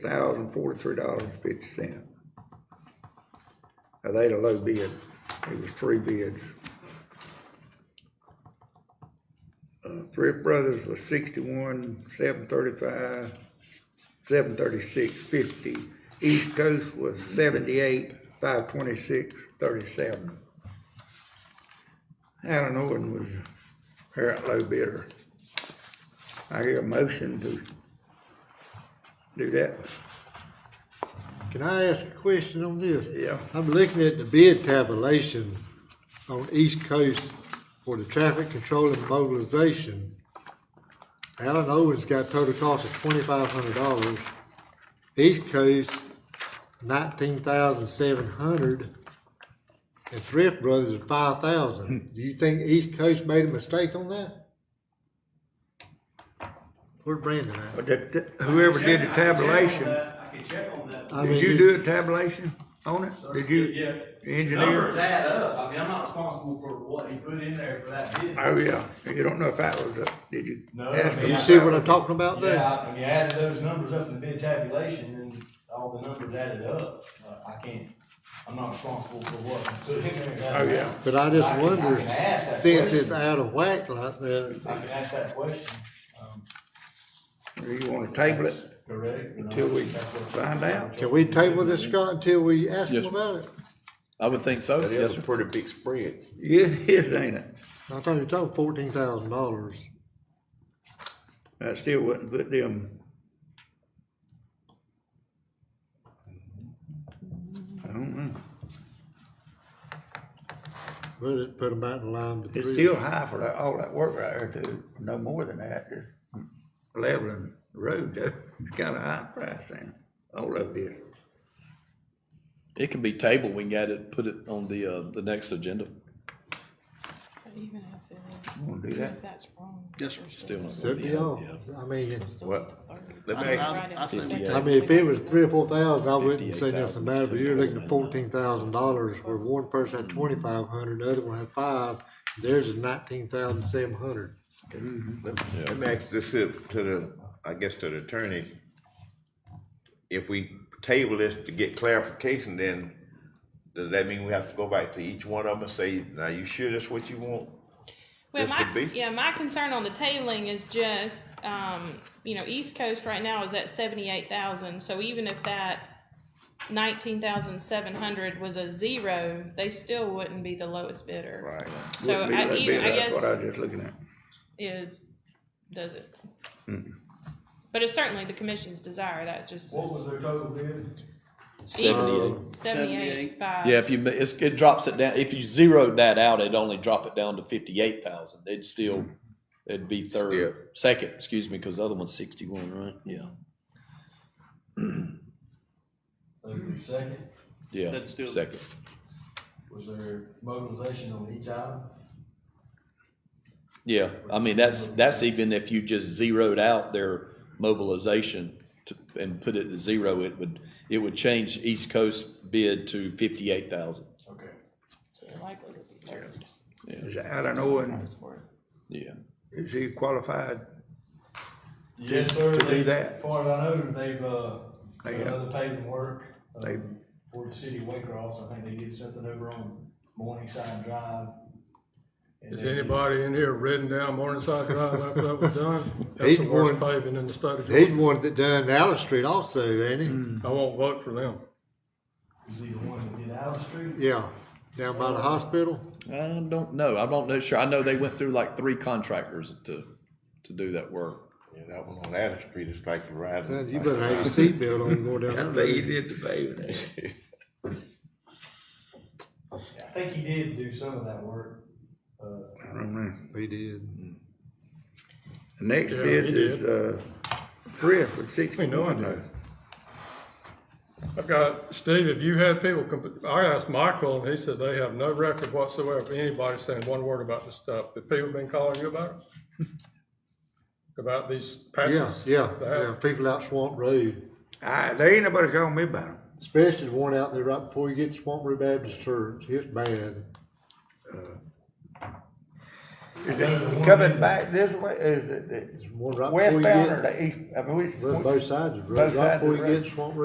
thousand forty-three dollars and fifty cents. Now, they had a low bid, it was three bids. Uh, Thrift Brothers was sixty-one, seven thirty-five, seven thirty-six, fifty. East Coast was seventy-eight, five twenty-six, thirty-seven. Allen Owen was apparent low bidder. I hear a motion to do that. Can I ask a question on this? Yeah. I'm looking at the bid tabulation on East Coast for the traffic control and mobilization. Allen Owens got total cost of twenty-five hundred dollars. East Coast, nineteen thousand seven hundred. And Thrift Brothers, five Hmm. thousand. Do you think East Coast made a mistake on that? Where's Brandon at? But that- that- Whoever did the tabulation, I can check on that. I did mean, you do a tabulation on it? Did you, Yeah. the Numbers engineer? add up. I mean, I'm not responsible for what he put in there for that bid. Oh, yeah. You don't know if that was, a- did you? No, ask I You mean, them? see what I'm talking about there? Yeah, I- when you add those numbers up in the bid tabulation and all the numbers added up, uh, I can't, I'm not responsible for what he put in there. Oh, yeah. But I I just can- I wonder, can ask that since it's question. out of whack like that, I can ask that question, um, Do you want to table it? correct? and Until we that's what- find out. can we table this, Scott, until we ask them Yes, sir. about it? I would think so. That Yes, is sir. a pretty big spread. Yeah, it is, ain't it? I thought you were talking fourteen thousand dollars. I still wouldn't put them. I don't know. Put it, put them back in line. to It's three. still high for that, all that work right there too, no more than that, just leveling the road though. It's kinda high price then, all of this. It can be tabled. We can add it, put it on the, uh, the next agenda. But even if it Wanna do is, that? if that's wrong. Yes, sir. Still not. Set me off. Yeah. I mean, it's- Well, let me I- ask, I- I think we- I mean, if it was three or four thousand, I wouldn't say nothing about it, but you're looking at $58,000. fourteen thousand dollars where one person had twenty-five hundred, the other one had five, theirs is nineteen thousand seven hundred. let let me ask this to to the, I guess to the attorney. If we table this to get clarification, then does that mean we have to go back to each one of them and say, now you sure that's what you want? Well, Just to my, be- yeah, my concern on the tabling is just, um, you know, East Coast right now is at seventy-eight thousand, so even if that nineteen thousand seven hundred was a zero, they still wouldn't be the lowest bidder. Right. So Wouldn't be I, that even, big, I That's what guess I was just looking at. is, does it? But it's certainly the commission's desire, that just What was is. their total bid? Seventy-eight. Seventy-eight, five. Yeah, if you, it's, it drops it down. If you zeroed that out, it'd only drop it down to fifty-eight thousand. It'd still, it'd be Still. third, second, excuse me, because the other one's sixty-one, right? Yeah. The second, Yeah, That's still- second. was there mobilization on each item? Yeah, I mean, that's, that's even if you just zeroed out their mobilization to- and put it to zero, it would, it would change East Coast bid to fifty-eight thousand. Okay. So likely to be third. Is Alan Owen, That's worth it. Yeah. is he qualified? Yes, sir. to do They- that. Far as I know, they've, uh, They done have. other paving work, They- um, for the city of Waycross, I think they did something over on Morningside Drive. And Has they did- anybody in here ridden down Morningside Drive after that was done? That's the Eight worst one. paving in the state He's of Georgia. the one that done Allen Street also, ain't he? I won't vote for them. Was he the one that did Allen Street? Yeah, down by the hospital. I don't know. I don't know. Sure. I know they went through like three contractors to, to do that work. Yeah, that one on Adams Street is like the Son, riding. You better have your seatbelt on going down I that think he road. did the paving. I think he did do some of that work, uh, I don't know. We did. The next Yeah, bid he is, uh, Thrift with sixty-one I though. did. I've got, Steve, if you had people, comp- I asked Michael, and he said they have no record whatsoever of anybody saying one word about this stuff. Have people been calling you about it? About these Yeah, patches? yeah, They have. yeah, people out Swamp Road, I, there ain't nobody calling me about him. especially the one out there right before you get to Swamp Road Baptist Church, it's bad. Is I know the it one coming that- back this way, is it the one right before you westbound or get, the east, I mean, which? both sides, of the road, Both right sides of before the you road. get Swamp Road.